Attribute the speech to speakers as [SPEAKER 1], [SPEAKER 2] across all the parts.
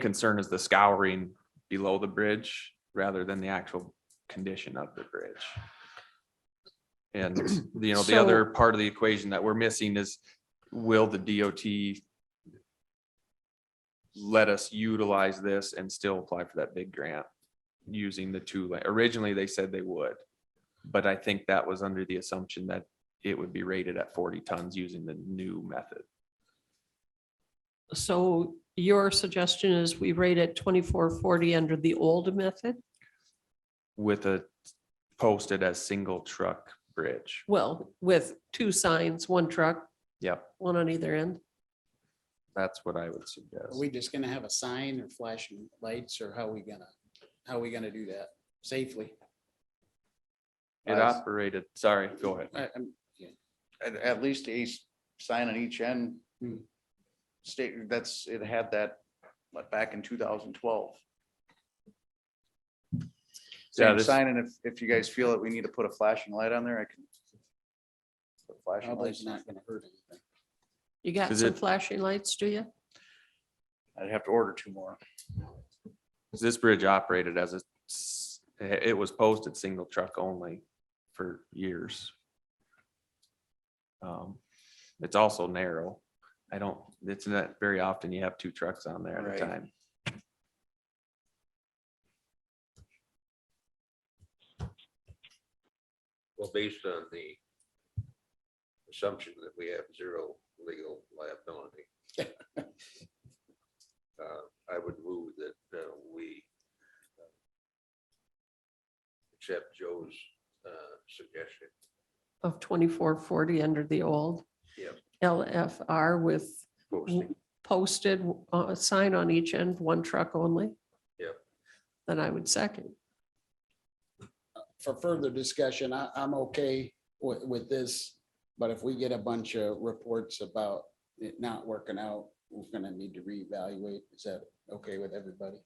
[SPEAKER 1] concern is the scouring below the bridge rather than the actual condition of the bridge. And, you know, the
[SPEAKER 2] So-
[SPEAKER 1] other part of the equation that we're missing is will the DOT let us utilize this and still apply for that big grant using the two, la- originally they said they would. But I think that was under the assumption that it would be rated at forty tons using the new method.
[SPEAKER 2] So your suggestion is we rate it twenty-four forty under the old method?
[SPEAKER 1] with a posted as single truck bridge.
[SPEAKER 2] Well, with two signs, one truck,
[SPEAKER 1] Yep,
[SPEAKER 2] one on either end.
[SPEAKER 1] that's what I would
[SPEAKER 3] Are
[SPEAKER 1] suggest.
[SPEAKER 3] we just gonna have a sign or flashing lights or how we gonna, how we gonna do that safely?
[SPEAKER 1] It operated, sorry, go ahead.
[SPEAKER 3] I- I'm-
[SPEAKER 4] at, at least a s- sign on each end.
[SPEAKER 3] Hmm.
[SPEAKER 4] State, that's, it had that, like, back in two thousand twelve.
[SPEAKER 1] Yeah,
[SPEAKER 4] Same
[SPEAKER 1] this-
[SPEAKER 4] sign, and if, if you guys feel that we need to put a flashing light on there, I can. put Flashing
[SPEAKER 3] Probably it's not
[SPEAKER 4] lights,
[SPEAKER 3] gonna hurt anything.
[SPEAKER 2] You got
[SPEAKER 1] Is
[SPEAKER 2] some
[SPEAKER 1] it-
[SPEAKER 2] flashing lights, do you?
[SPEAKER 4] I'd have to order two more.
[SPEAKER 1] 'Cause This bridge operated as a, s- it it was posted single truck only for years. Um, It's also narrow. I don't, it's not very often you have two trucks on there at a
[SPEAKER 4] Right.
[SPEAKER 1] time.
[SPEAKER 5] Well, based on the assumption that we have zero legal liability. uh, I would move that uh, we uh, accept Joe's uh, suggestion.
[SPEAKER 2] Of twenty-four forty under the old?
[SPEAKER 5] Yep.
[SPEAKER 2] LFR with
[SPEAKER 5] posting.
[SPEAKER 2] posted, uh, a sign on each end, one truck only?
[SPEAKER 5] Yep.
[SPEAKER 2] Then I would second.
[SPEAKER 3] For further discussion, I, I'm okay with, with this, but if we get a bunch of reports about it not working out, we're gonna need to reevaluate. Is that okay with everybody?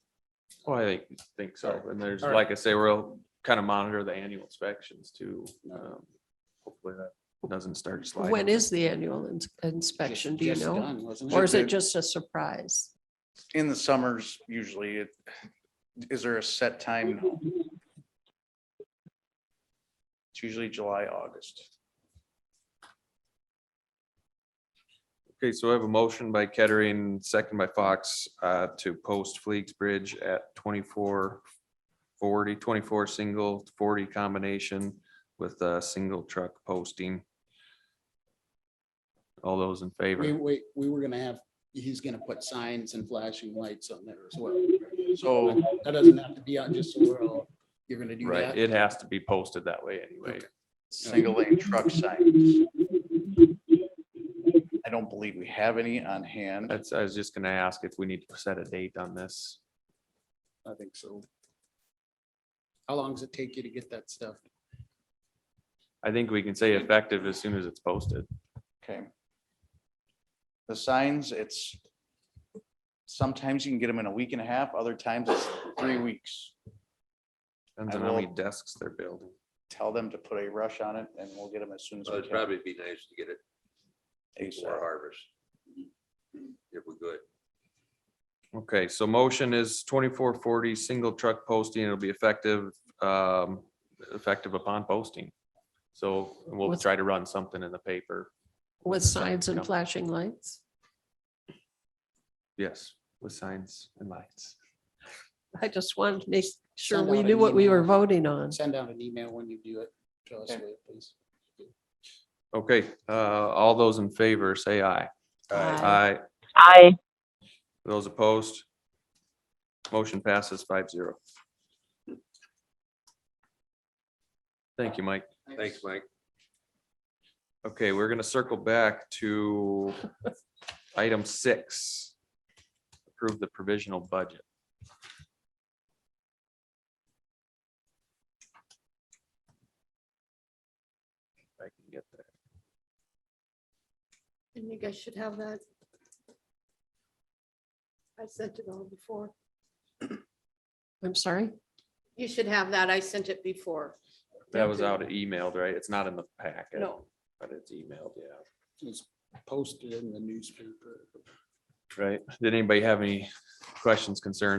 [SPEAKER 1] Well, I think, think so. And there's,
[SPEAKER 3] All right.
[SPEAKER 1] like I say, we'll kind of monitor the annual inspections too.
[SPEAKER 3] No.
[SPEAKER 1] Um, Hopefully that doesn't start sliding.
[SPEAKER 2] When is the annual ins- inspection?
[SPEAKER 3] Just-
[SPEAKER 2] Do you
[SPEAKER 3] just uh,
[SPEAKER 2] know?
[SPEAKER 3] done, wasn't
[SPEAKER 2] Or is it just a surprise?
[SPEAKER 4] In the summers, usually it, is there a set time? No. It's usually July, August.
[SPEAKER 1] Okay, so I have a motion by Kettering, second by Fox, uh, to post Fleeks Bridge at 24 40, 24 single, forty combination with a single truck posting. All those in
[SPEAKER 3] We,
[SPEAKER 1] favor?
[SPEAKER 3] we, we were gonna have, he's gonna put signs and flashing lights on there as well.
[SPEAKER 4] So
[SPEAKER 3] That doesn't have to be out just so we're all, you're gonna do
[SPEAKER 1] Right,
[SPEAKER 3] that.
[SPEAKER 1] it has to be posted that way anyway.
[SPEAKER 4] single lane truck signs. I don't believe we have any on hand.
[SPEAKER 1] That's, I was just gonna ask if we need to set a date on this.
[SPEAKER 3] I think so. How long does it take you to get that stuff?
[SPEAKER 1] I think we can say effective as soon as it's posted.
[SPEAKER 4] Okay. The signs, it's, sometimes you can get them in a week and a half, other times it's three weeks.
[SPEAKER 1] Depends
[SPEAKER 4] I
[SPEAKER 1] on how many
[SPEAKER 4] will-
[SPEAKER 1] desks they're building.
[SPEAKER 4] Tell them to put a rush on it and we'll get them as soon as
[SPEAKER 5] So
[SPEAKER 4] we
[SPEAKER 5] It'd
[SPEAKER 4] can.
[SPEAKER 5] probably be nice to get it before
[SPEAKER 4] ASAP.
[SPEAKER 5] harvest. If we could.
[SPEAKER 1] Okay, so motion is twenty-four forty, single truck posting, it'll be effective, um, effective upon posting. So we'll
[SPEAKER 2] With-
[SPEAKER 1] try to run something in the paper,
[SPEAKER 2] With signs
[SPEAKER 1] Yeah.
[SPEAKER 2] and flashing lights?
[SPEAKER 1] yes, with signs and lights.
[SPEAKER 2] I just wanted to make sure
[SPEAKER 3] Send
[SPEAKER 2] we
[SPEAKER 3] out an
[SPEAKER 2] knew what we were
[SPEAKER 3] email.
[SPEAKER 2] voting on.
[SPEAKER 3] Send out an email when you do it. to us,
[SPEAKER 4] Okay.
[SPEAKER 3] will you, please.
[SPEAKER 1] Okay, uh, all those in favor, say aye.
[SPEAKER 2] Aye.
[SPEAKER 6] Aye.
[SPEAKER 1] Those opposed? Motion passes five zero. Thank you, Mike.
[SPEAKER 5] Thanks, Mike.
[SPEAKER 1] Okay, we're gonna circle back to item six. Approve the provisional budget. If I can get there.
[SPEAKER 7] I think I should have that. I sent it all before.
[SPEAKER 2] I'm sorry?
[SPEAKER 7] You should have that. I sent it before.
[SPEAKER 1] That was out emailed, right? It's not in the packet.
[SPEAKER 7] No,
[SPEAKER 1] But it's emailed, yeah.
[SPEAKER 3] It's posted in the newspaper.
[SPEAKER 1] right? Did anybody have any questions, concerns?